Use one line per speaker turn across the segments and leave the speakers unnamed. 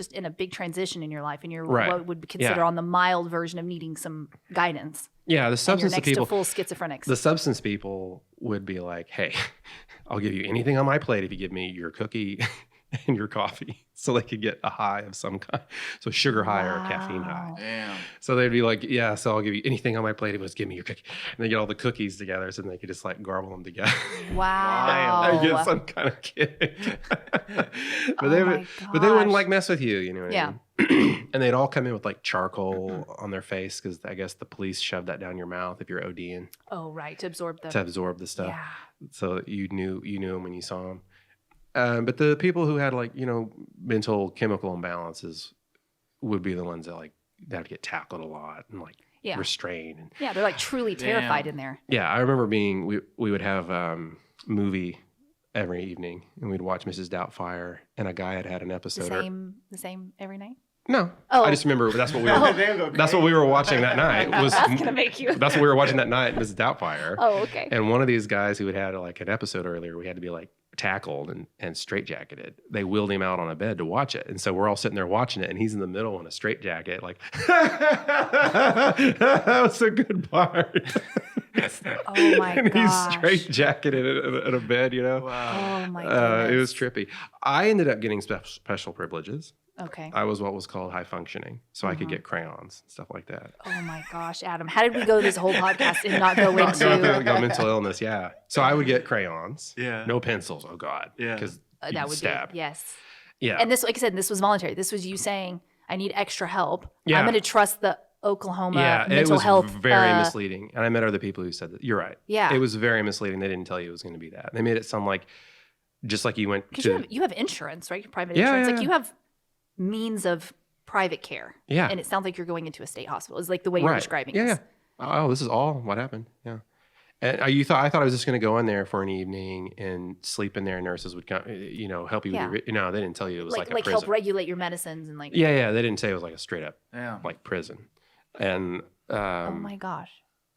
just in a big transition in your life and you're
Right.
what would be considered on the mild version of needing some guidance.
Yeah, the
and you're
substance
next
people
to full schizophrenics.
the substance people would be like, "Hey, I'll give you anything on my plate if you give me your cookie and your coffee." So they could get a high of some kind, so sugar high or a caffeine high.
Wow.
Damn.
So they'd be like, "Yeah, so I'll give you anything on my plate if you just give me your cookie." And they get all the cookies together, so then they could just like garble them together.
Wow.
I get some kind of kick. but they
Oh
would,
my
but they wouldn't
gosh.
like mess with you, you know. What
Yeah.
I mean? and they'd all come in with like charcoal on their face because I guess the police shoved that down your mouth if you're ODing
Oh, right. To absorb the.
to absorb the stuff.
yeah.
so that you knew you knew him when you saw him. Um, but the people who had like you know mental chemical imbalances would be the ones that like that would get tackled a lot and like
Yeah.
restrained. And,
Yeah. They're like truly terrified
Damn.
in there.
yeah, I remember being we we would have um, movie every evening and we'd watch Mrs. Doubtfire and a guy had had an
The
episode. or-
same, the same every night.
no,
Oh.
I just remember that's what we
Oh.
were, that's what we were watching that night was
That's gonna make you.
that's what we were watching that night Mrs. Doubtfire.
Oh, okay.
And one of these guys who had had like an episode earlier, we had to be like tackled and, and straitjacketed. They wheeled him out on a bed to watch it. And so we're all sitting there watching it, and he's in the middle in a straitjacket, like, that was a good part.
Oh my
and
gosh.
he's straitjacketed in, a- in a bed, you know?
Wow.
Oh my
Uh,
god.
it was trippy. I ended up getting spe- special privileges.
Okay.
I was what was called high functioning, so I could
Mhm.
get crayons, stuff like that.
Oh my gosh, Adam. How did we go this whole podcast and not go
Not going
into
through got mental illness, yeah. So I would get crayons,
Yeah.
no pencils. Oh God,
Yeah.
because
Uh,
you
that
can
would
stab.
be yes.
Yeah.
And this, like I said, this was voluntary. This was you saying, "I need extra help.
Yeah.
I'm going to trust the Oklahoma
yeah,
mental
it was
health."
very
uh,
misleading. And I met other people who said that. You're right.
Yeah,
It was very misleading. They didn't tell you it was going to be that. They made it sound like just like you went
because
to
you have you have insurance, right? Private
Yeah,
insurance.
yeah,
like
yeah.
you have means of private care,
yeah.
and it sounds like you're going into a state hospital. Is like the way you're
Right.
describing.
Yeah,
this.
oh, this is all what happened. Yeah. And uh, you thought I thought I was just going to go in there for an evening and sleep in there. Nurses would come, uh, you know, help you.
Yeah.
With your, no, they didn't tell you it was
like
like,
like,
a prison.
help regulate your medicines and like.
yeah, yeah. They didn't say it was like a straight up
Yeah.
like prison. And um,
Oh my gosh.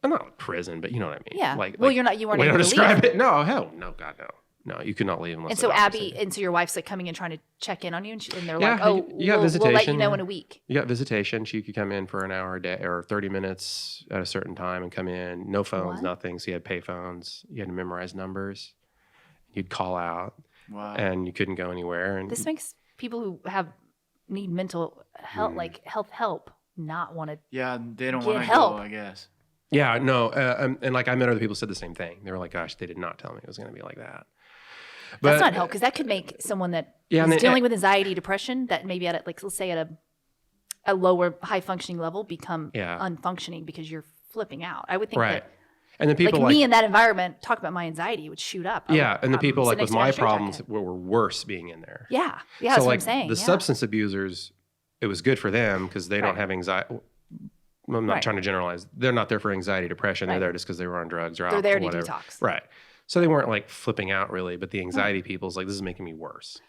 not like prison, but you know what I mean.
Yeah.
Like,
well,
like,
you're not. You weren't
way to
able to leave.
describe it. No, hell, no, God, no, no. You could not leave unless.
And
the
so
doctor
Abby,
said-
and so your wife's like coming and trying to check in on you, and, she, and they're
Yeah,
like,
you-
"Oh,
you got
we'll, we'll let you
visitation,
know
yeah.
in a week."
you got visitation. She could come in for an hour a day or thirty minutes at a certain time and come in. No phones,
What?
nothing. So you had pay phones. You had to memorize numbers. You'd call out,
Wow.
and you couldn't go anywhere. And
This makes people who have need mental health,
Mm.
like health help, not want to.
yeah, they don't
Get
want to go,
help.
I guess.
yeah, no, uh, um, and like I met other people who said the same thing. They were like, "Gosh, they did not tell me it was going to be like that."
That's not help because that could make someone that is
Yeah, and eh then-
dealing with anxiety, depression, that maybe at a, like let's say at a a lower high functioning level become
Yeah.
unfunctioning because you're flipping out. I would think
right.
that
And then people
like, me in that environment talk about my anxiety would shoot up. I
yeah,
would-
and the
I'm
people like
sitting next
with
to
my
a straitjacket.
problems were, were worse being in there.
Yeah, yeah, that's
so
what
like
I'm saying.
the
yeah.
substance abusers, it was good for them because they don't
Right.
have anxiety. I'm not
Right.
trying to generalize. They're not there for anxiety, depression.
Right.
They're there just because they were on drugs or
they're
alcohol,
there to
whatever.
detox.
Right. So they weren't like flipping out really, but the anxiety people's like, this is making me worse.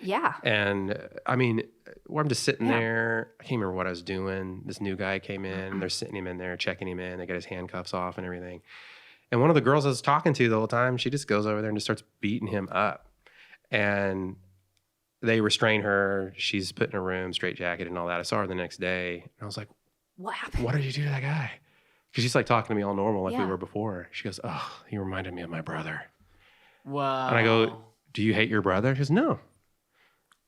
Yeah,
And uh, I mean, where I'm just sitting
Yeah.
there, I can't remember what I was doing. This new guy came in, they're sitting him in there, checking him in. They got his handcuffs off and everything. And one of the girls I was talking to the whole time, she just goes over there and just starts beating him up. And they restrain her. She's put in a room, straight jacket and all that. I saw her the next day and I was like,
what happened?
What did you do to that guy? Because she's like talking to me all normal like we
Yeah.
were before. She goes, Oh, he reminded me of my brother.
Wow.
I go, Do you hate your brother? She goes, No.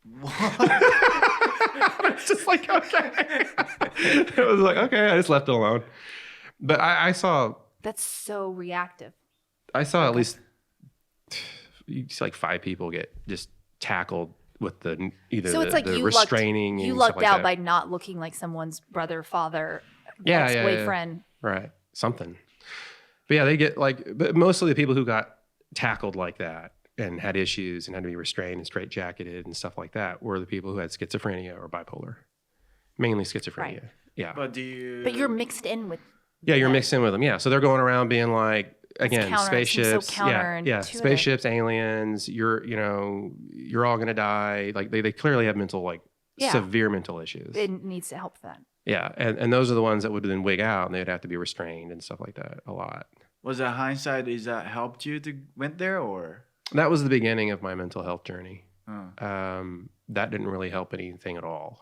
What?
it's just like okay. it was like okay. I just left it alone. But I, I saw
That's so reactive.
I saw at least you see, like five people get just tackled with the either
So
the,
it's like
the
you lucked-
restraining
you
and
lucked
stuff like
out
that.
by not looking like someone's brother, father,
Yeah, yeah, yeah.
ex-boyfriend.
right something. But yeah, they get like but mostly the people who got tackled like that and had issues and had to be restrained and straitjacketed and stuff like that were the people who had schizophrenia or bipolar, mainly schizophrenia. Yeah.
But do you?
But you're mixed in with
Yeah, you're
Yeah.
mixed in with them. Yeah, so they're going around being like again
counter- it seems so
spaceships. yeah, yeah,
counterintuitive.
spaceships, aliens. You're you know you're all gonna die. Like they, they clearly have mental like
Yeah.
severe mental issues.
it needs to help that.
yeah, and and those are the ones that would then wig out and they'd have to be restrained and stuff like that a lot.
Was that hindsight? Is that helped you to went there or?
That was the beginning of my mental health journey.
Oh.
Um, that didn't really help anything at all.